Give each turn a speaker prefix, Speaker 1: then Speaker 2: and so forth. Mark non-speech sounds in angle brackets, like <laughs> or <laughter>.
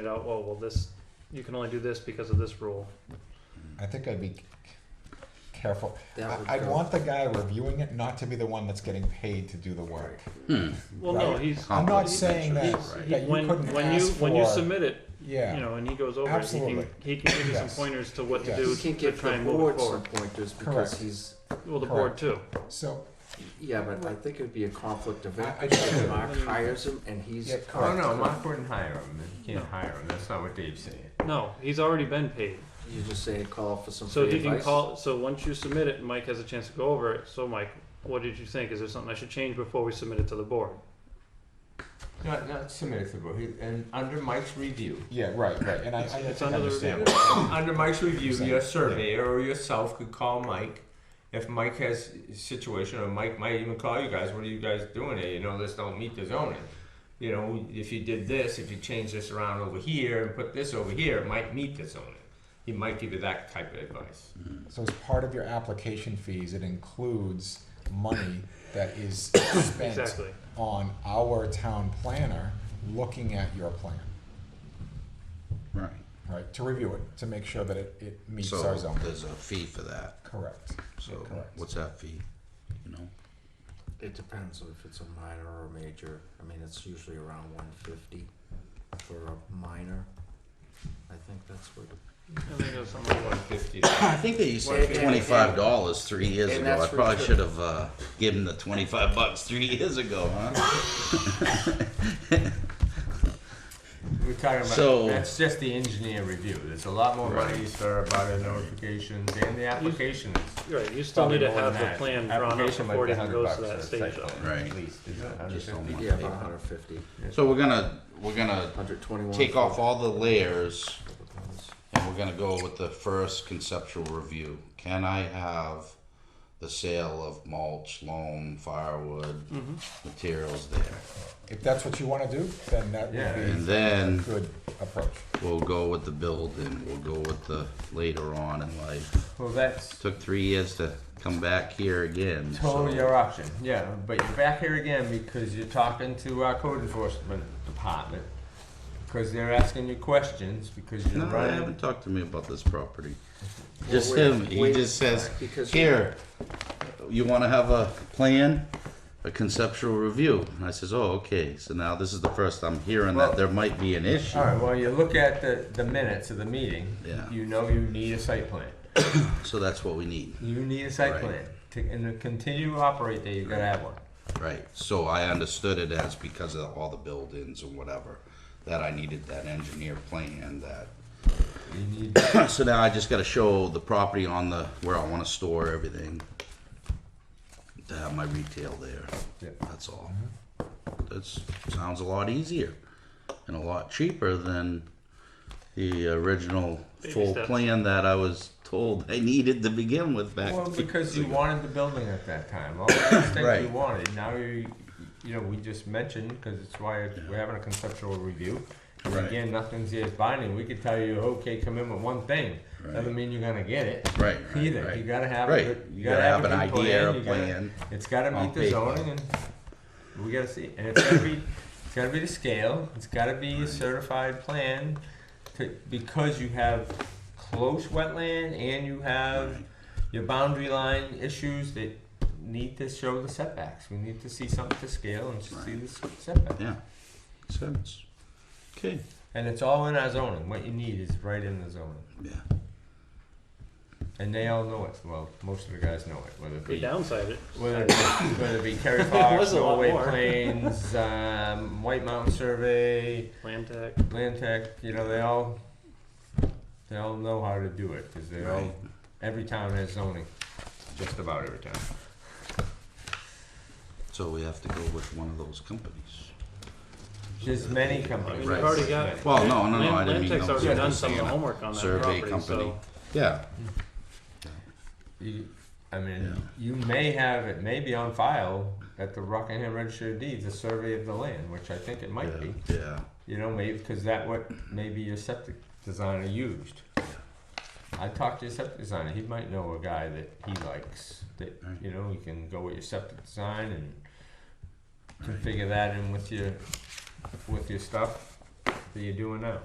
Speaker 1: it out, oh, well, this, you can only do this because of this rule.
Speaker 2: I think I'd be c- careful.
Speaker 3: That would
Speaker 2: I, I'd
Speaker 3: go-
Speaker 2: want the guy reviewing it not to be the one that's getting paid to do the work.
Speaker 1: Well, no,
Speaker 2: Right.
Speaker 1: he's.
Speaker 2: I'm not
Speaker 1: he's-
Speaker 2: saying that,
Speaker 1: he's- he-
Speaker 2: that you
Speaker 1: When,
Speaker 2: couldn't
Speaker 1: when you,
Speaker 2: ask
Speaker 1: when you
Speaker 2: for-
Speaker 1: submit it,
Speaker 2: Yeah.
Speaker 1: you know, and he goes over it, he can,
Speaker 2: Absolutely.
Speaker 1: he can give you some
Speaker 2: Yes.
Speaker 1: pointers to what to
Speaker 2: Yes.
Speaker 1: do
Speaker 3: You
Speaker 1: to
Speaker 3: can't get
Speaker 1: try
Speaker 3: from
Speaker 1: and move it
Speaker 3: board some
Speaker 1: forward.
Speaker 3: pointers
Speaker 2: Correct.
Speaker 3: because he's,
Speaker 1: Well, the board
Speaker 2: Correct.
Speaker 1: too.
Speaker 2: So
Speaker 3: yeah, but I think it'd be a conflict of
Speaker 2: I- I
Speaker 3: interest
Speaker 2: do.
Speaker 3: if Mark hires him and he's.
Speaker 2: Yeah,
Speaker 4: Oh
Speaker 2: correct.
Speaker 4: no, Mark wouldn't hire him. You can't
Speaker 1: No.
Speaker 4: hire him. That's not what Dave's saying.
Speaker 1: No, he's already been paid.
Speaker 3: You just say call for some
Speaker 1: So
Speaker 3: free
Speaker 1: he can
Speaker 3: advice.
Speaker 1: call, so once you submit it, Mike has a chance to go over it. So Mike, what did you think? Is there something I should change before we submit it to the board?
Speaker 4: Not not submitted to the board. He- And under Mike's <clears throat> review,
Speaker 2: yeah, right, right. And I, I
Speaker 1: It's-
Speaker 2: think
Speaker 1: it's
Speaker 2: I
Speaker 1: under the
Speaker 2: understand.
Speaker 1: review.
Speaker 4: under Mike's review,
Speaker 2: Same.
Speaker 4: your surveyor or yourself could call Mike. If Mike has a situation, or Mike might even call you guys, what are you guys doing here? You know, this don't meet the zoning. You know, if you did this, if you change this around over here and put this over here, it might meet the zoning. He might give you that type of advice.
Speaker 2: So as part of your application fees, it includes money that
Speaker 1: <coughs>
Speaker 2: is spent
Speaker 1: Exactly.
Speaker 2: on our town planner looking at your plan,
Speaker 5: Right.
Speaker 2: right? To review it, to make sure that it, it meets
Speaker 5: So
Speaker 2: our zone.
Speaker 5: there's a fee for that.
Speaker 2: Correct.
Speaker 5: So
Speaker 2: Correct.
Speaker 5: what's that fee? You know?
Speaker 3: It depends if it's a minor or a major. I mean, it's usually around one fifty for a minor. I think that's what.
Speaker 1: I think it was something like,
Speaker 4: Fifty.
Speaker 5: I think they used to
Speaker 3: Well,
Speaker 5: have
Speaker 3: and-
Speaker 5: twenty-five dollars three years
Speaker 3: and
Speaker 5: ago. I
Speaker 3: that's
Speaker 5: probably
Speaker 3: for-
Speaker 5: should have uh, given the twenty-five bucks three years ago, huh?
Speaker 4: We're talking about,
Speaker 5: So-
Speaker 4: that's just the engineer review, there's a lot more
Speaker 5: Right.
Speaker 4: monies for about the notifications and the applications.
Speaker 1: right, you still need to have the plan drawn up
Speaker 4: Application might
Speaker 1: before it
Speaker 4: be
Speaker 1: even
Speaker 4: 100
Speaker 1: goes to
Speaker 4: bucks
Speaker 1: that
Speaker 4: for
Speaker 1: stage
Speaker 4: site
Speaker 1: though.
Speaker 4: plan,
Speaker 5: Right.
Speaker 4: At least, isn't it?
Speaker 5: Just don't
Speaker 4: 150?
Speaker 5: want-
Speaker 3: Yeah, about hundred fifty,
Speaker 5: So we're gonna, we're gonna
Speaker 3: hundred twenty-one.
Speaker 5: take off all the layers and we're gonna go with the first conceptual review. Can I have the sale of mulch, loam, firewood,
Speaker 3: Mm-hmm.
Speaker 5: materials there?
Speaker 2: If that's what you wanna do, then that
Speaker 4: Yeah.
Speaker 2: would
Speaker 5: And
Speaker 2: be a
Speaker 5: then
Speaker 2: good approach.
Speaker 5: we'll go with the building, we'll go with the later on in life.
Speaker 4: Well, that's
Speaker 5: Took three years to come back here again. so-
Speaker 4: totally your option, yeah, but you're back here again because you're talking to our code enforcement department. Because they're asking you questions, because you're
Speaker 5: No, I
Speaker 4: running.
Speaker 5: haven't talked to me about this property. Just
Speaker 3: wait,
Speaker 5: him, he
Speaker 3: wait,
Speaker 5: just says,
Speaker 3: because-
Speaker 5: here, you wanna have a plan, a conceptual review? And I says, oh, okay, so now this is the first I'm hearing
Speaker 4: Well-
Speaker 5: that there might be an issue.
Speaker 4: Alright, well, you look at the, the minutes of the meeting,
Speaker 5: Yeah.
Speaker 4: you know you need a site plan.
Speaker 5: So that's what we need,
Speaker 4: You need a site
Speaker 5: Right.
Speaker 4: plan. To, and to continue to operate there, you gotta have one.
Speaker 5: right? So I understood it as because of all the buildings and whatever, that I needed that engineer plan that
Speaker 4: You need,
Speaker 5: <clears throat> so now I just gotta show the property on the, where I wanna store everything. To have my retail there,
Speaker 4: Yeah.
Speaker 5: that's all. That's, sounds a lot easier and a lot cheaper than the original
Speaker 1: Baby
Speaker 5: full
Speaker 1: steps.
Speaker 5: plan that I was told I needed to begin with back.
Speaker 4: well,
Speaker 5: six
Speaker 4: because you
Speaker 5: ago.
Speaker 4: wanted the building at that time, all the things you
Speaker 5: Right.
Speaker 4: wanted, now you, you know, we just mentioned, because it's why we're having a conceptual review. And
Speaker 5: Right.
Speaker 4: again, nothing's here is binding, we could tell you, okay, come in with one thing, doesn't mean you're gonna get it.
Speaker 5: Right, right,
Speaker 4: Either,
Speaker 5: right.
Speaker 4: you gotta have, a
Speaker 5: Right.
Speaker 4: good- you
Speaker 5: You
Speaker 4: gotta have an idea,
Speaker 5: a
Speaker 4: you gotta,
Speaker 5: plan
Speaker 4: it's gotta
Speaker 5: on
Speaker 4: meet the
Speaker 5: paper.
Speaker 4: zoning and we gotta see, and it's gotta be, it's gotta be the scale, it's gotta be a certified plan to, because you have close wetland and you have your boundary line issues that need to show the setbacks, we need to see something to scale and see the s- setback.
Speaker 5: Yeah, makes sense. Okay,
Speaker 4: And it's all in our zoning, what you need is right in the zoning,
Speaker 5: yeah,
Speaker 4: and they all know it, well, most of the guys know it, whether it
Speaker 1: We
Speaker 4: be
Speaker 1: downside it.
Speaker 4: Whether it be, whether it be
Speaker 1: <laughs>
Speaker 4: Kerry
Speaker 1: was
Speaker 4: Fox,
Speaker 1: a lot
Speaker 4: Norway
Speaker 1: more.
Speaker 4: Plains, um, White Mountain Survey,
Speaker 1: Land tech.
Speaker 4: Land Tech, you know, they all they all know how to do it because they all
Speaker 5: Right.
Speaker 4: every town has zoning, just about every town.
Speaker 5: so we have to go with one of those companies.
Speaker 4: There's many
Speaker 1: I mean,
Speaker 4: companies.
Speaker 1: you've already got,
Speaker 5: Well, no, no, no, I
Speaker 1: Land,
Speaker 5: didn't
Speaker 1: Land
Speaker 5: mean.
Speaker 1: Tech's
Speaker 5: those.
Speaker 1: already
Speaker 4: Yeah,
Speaker 1: done
Speaker 5: Just
Speaker 1: some of the
Speaker 5: saying a
Speaker 1: homework on that
Speaker 5: Survey
Speaker 1: property,
Speaker 5: company,
Speaker 1: so.
Speaker 5: yeah,
Speaker 4: You, I mean,
Speaker 5: Yeah.
Speaker 4: you may have it may be on file at the Rockingham Register of Deeds, a survey of the land, which I think it might
Speaker 5: yeah,
Speaker 4: be.
Speaker 5: yeah,
Speaker 4: You know, maybe because that what maybe your septic designer used. I talked to your septic designer. He might know a guy that he likes. That
Speaker 5: Right.
Speaker 4: you know, you can go with your septic design and configure that in with your with your stuff that you're doing now.